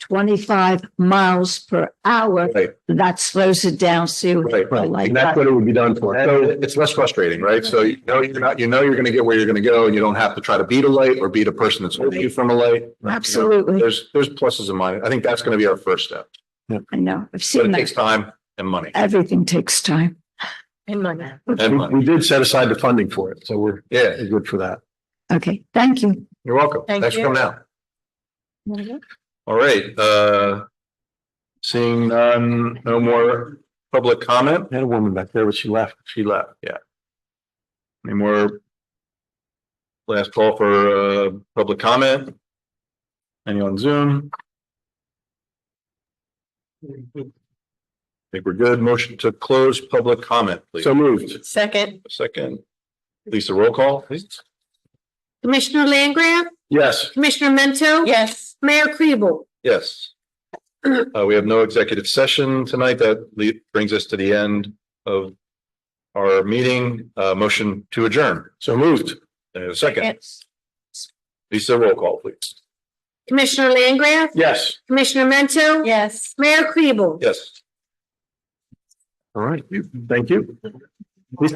twenty-five miles per hour, Right, that slows it down, so right, I right. like And that's that. what it would be done for. So it's less frustrating, right? So you know, you're not, you know, you're going to get where you're going to go and you don't have to try to beat a light or beat a person that's holding you from a light. absolutely, There's, there's pluses and minuses. I think that's going to be our first step, I know, I've but seen it takes that. time and money Everything takes time. In my mind. and money. We did set aside the funding for it, so we're Yeah, good for that. Okay, thank you. you're welcome. Thank Thanks for you. coming out. All right, uh. Seeing none, no more public comment. We had a woman back there, but she left. She left, yeah. Any more? Last call for uh public comment? Any on Zoom? Think we're good. Motion to close public comment, please. So moved. Second, Second. Lisa, roll call, please. Commissioner Langgraf? Yes. Commissioner Mento? yes, Mayor Kribel? Yes. Uh, we have no executive session tonight. That le- brings us to the end of our meeting. Uh, motion to adjourn. So moved. Uh, Second, yes. Lisa, roll call, please. Commissioner Langgraf? Yes. Commissioner Mento? yes. Mayor Kribel? Yes. All right. Thank you.